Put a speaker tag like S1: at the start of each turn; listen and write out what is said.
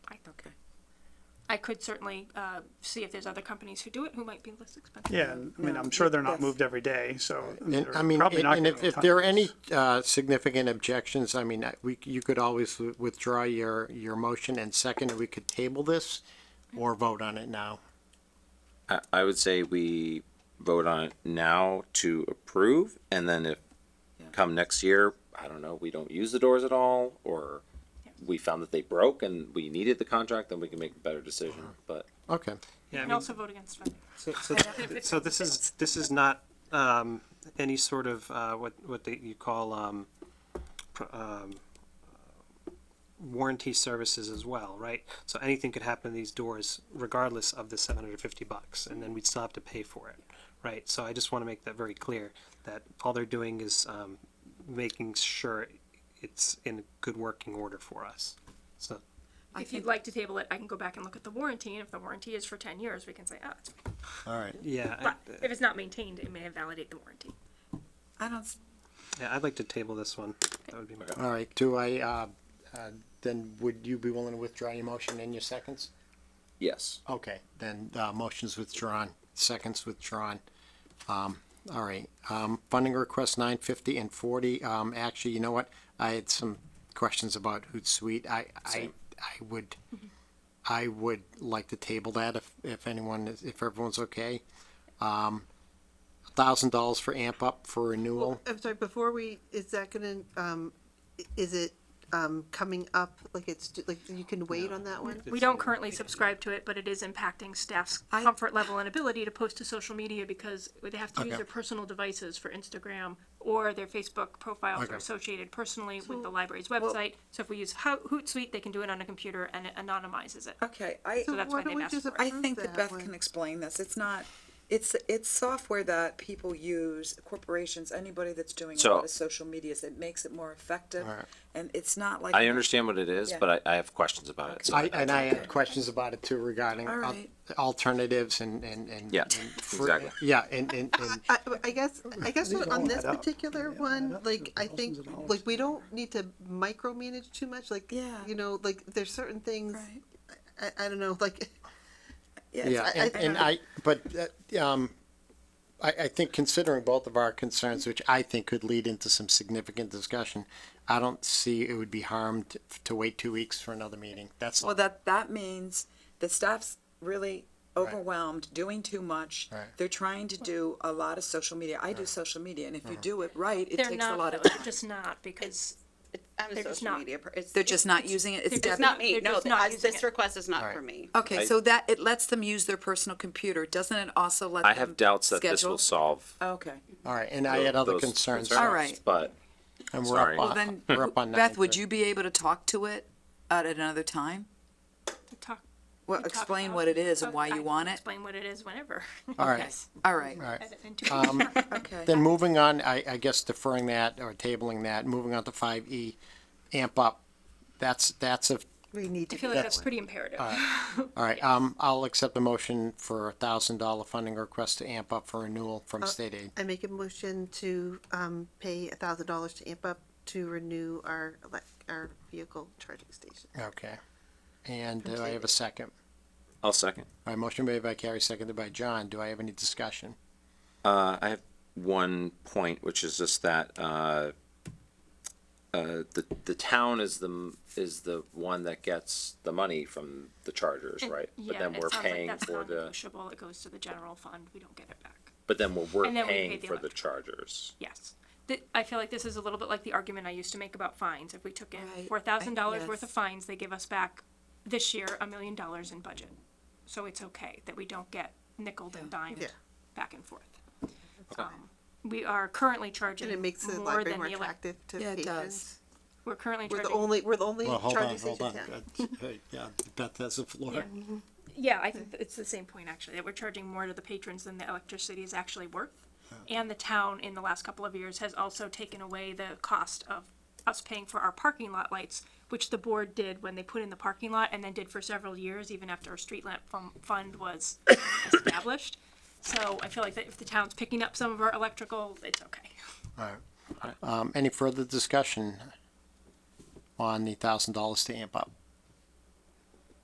S1: I could certainly uh, see if there's other companies who do it who might be less expensive.
S2: Yeah, and, I mean, I'm sure they're not moved every day, so.
S3: And,
S2: they're
S3: I mean,
S2: probably
S3: and
S2: not
S3: and
S2: gonna
S3: if,
S2: have
S3: if
S2: time.
S3: there are any, uh, significant objections, I mean, I- we, you could always w- withdraw your, your motion and second, and we could table this or vote on it now.
S4: I, I would say we vote on it now to approve, and then if come next year, I don't know, we don't use the doors at all, or we found that they broke and we needed the contract, then we can make a better decision,
S5: Uh-huh.
S4: but.
S3: Okay.
S6: Yeah, I
S1: And
S6: mean,
S1: also vote against funding.
S6: so, so, so this is, this is not, um, any sort of, uh, what, what they, you call, um, pr- um, warranty services as well, right? So anything could happen to these doors regardless of the seven hundred fifty bucks, and then we'd still have to pay for it, right? So I just wanna make that very clear, that all they're doing is, um, making sure it's in good working order for us. So,
S7: I
S1: If you'd
S7: think,
S1: like to table it, I can go back and look at the warranty, and if the warranty is for ten years, we can say, oh, it's,
S3: All right.
S6: yeah. I- uh,
S1: but if it's not maintained, it may invalidate the warranty.
S7: I don't, s-
S6: Yeah, I'd like to table this one. That would be my.
S3: All right. Do I, uh, uh, then would you be willing to withdraw your motion and your seconds?
S4: Yes.
S3: Okay, then, uh, motion's withdrawn, seconds withdrawn. Um, all right, um, funding request nine fifty and forty, um, actually, you know what? I had some questions about Hootsuite. I, I, I would, I would like to table that if, if anyone, is- if everyone's okay. Um, thousand dollars for amp up for renewal.
S7: I'm sorry, before we, is that gonna, um, i- is it, um, coming up, like it's, d- like you can wait on that one?
S1: We don't currently subscribe to it, but it is impacting staff's
S7: I-
S1: comfort level and ability to post to social media because they have to use
S3: Okay.
S1: their personal devices for Instagram or their Facebook profiles
S3: Okay.
S1: are associated personally with
S7: So,
S1: the library's
S7: well-
S1: website. So if we use Ho- Hootsuite, they can do it on a computer and it anonymizes it.
S5: Okay, I,
S1: So that's
S7: why
S1: why
S7: don't
S1: they've
S7: we
S1: asked
S7: just
S1: for it.
S5: I
S7: Approve
S5: think that
S7: that
S5: Beth can
S7: one.
S5: explain this. It's not, it's, it's software that people use, corporations, anybody that's doing a
S4: So-
S5: lot of social medias. It makes it more effective and it's not like.
S4: I understand what it is,
S5: Yeah.
S4: but I, I have questions about it. so
S3: I, and I had questions about it too regarding
S5: All
S3: al-
S5: right.
S3: alternatives and, and, and.
S4: Yeah,
S3: and for-
S4: exactly.
S3: Yeah, and, and, and.
S7: I, I guess, I guess
S2: These
S7: on
S2: all
S7: this
S2: add up.
S7: particular
S2: They all add
S7: one,
S2: up to
S7: like, I think,
S2: thousands of dollars.
S7: like, we don't need to micromanage too much, like,
S5: Yeah.
S7: you know, like, there's certain things,
S5: Right.
S7: I, I don't know, like,
S3: Yeah,
S5: it's-
S3: and, and I, but, uh, um, I, I think considering both of our concerns, which I think could lead into some significant discussion, I don't see it would be harmed to wait two weeks for another meeting. That's all.
S5: Well, that, that means the staff's really overwhelmed, doing too much.
S3: Right.
S5: They're trying to do a lot of social media. I do social media and if
S3: Mm-hmm.
S5: you do it right, it
S1: They're
S5: takes a
S1: not,
S5: lot of
S1: though. They're
S5: time.
S1: just not because
S8: It- I'm
S1: They're
S8: a
S1: just
S8: social
S1: not-
S8: media. per- it's-
S5: They're just
S8: it's-
S5: not using it. It's
S8: It's
S5: definitely.
S8: not me.
S1: They're
S8: No,
S1: just not
S8: I-
S1: using it.
S8: this request is not for
S3: Alright.
S8: me.
S5: Okay,
S4: I-
S5: so that, it lets them use their personal computer. Doesn't it also let them?
S4: I have doubts that this will
S5: schedule?
S4: solve.
S5: Okay.
S3: All right, and I had other
S4: those
S3: concerns.
S5: All right.
S4: But
S3: And we're up
S4: Sorry.
S5: Well,
S3: on,
S5: then,
S3: Uh, we're up on.
S5: Beth, would
S3: 9:30.
S5: you be able to talk to it at another time?
S1: to talk.
S5: Well,
S1: to talk
S5: explain
S1: about-
S5: what it is and
S1: Oh,
S5: why
S1: I
S5: you
S1: can
S5: want it?
S1: Explain what it is whenever.
S3: All
S5: Okay.
S3: right,
S5: All right,
S3: all right.
S1: In two
S3: Um,
S5: okay.
S3: Then moving on, I, I guess deferring that or tabling that, moving on to five E, amp up. That's, that's a
S7: we need
S1: I
S7: to.
S1: feel like that's pretty imperative.
S3: All right, um, I'll accept the motion for a thousand dollar funding request to amp up for renewal
S5: Uh,
S3: from state aid.
S7: I make a motion to, um, pay a thousand dollars to amp up to renew our, elec our vehicle charging station.
S3: Okay. And do I have a second?
S4: I'll second.
S3: All right, motion made by Carrie, seconded by John. Do I have any discussion?
S4: Uh, I have one point, which is just that, uh, uh, the, the town is the, is the one that gets the money from the chargers,
S1: And-
S4: right? But
S1: yeah,
S4: then
S1: it
S4: we're
S1: sounds like
S4: paying
S1: that's
S4: for the,
S1: non-negotiable. It goes to the general fund. We don't get it back.
S4: but then we're, we're
S1: And then we pay
S4: paying
S1: the
S4: for the
S1: electric.
S4: chargers.
S1: Yes. Th- I feel like this is a little bit like the argument I used to make about fines. If we took in
S5: Right.
S1: four thousand dollars
S5: Yes.
S1: worth of fines, they give us back this year a million dollars in budget. So it's okay that we don't get nickled and dimed
S7: Yeah.
S1: back and forth. Um, We are currently charging
S7: And it makes the
S1: more
S7: library
S1: than
S7: more
S1: the elec-
S7: attractive to
S5: Yeah, it
S7: patrons.
S5: does.
S1: we're currently
S7: We're the
S1: charging,
S7: only, we're the only charging station town.
S3: Yeah, Beth has the floor.
S1: yeah, I think it's the same point actually, that we're charging more to the patrons than the electricity is actually worth. And the town in the last couple of years has also taken away the cost of us paying for our parking lot lights, which the board did when they put in the parking lot and then did for several years, even after our street lamp fun- fund was established. So I feel like that if the town's picking up some of our electrical, it's okay.
S3: Um, any further discussion on the thousand dollars to amp up?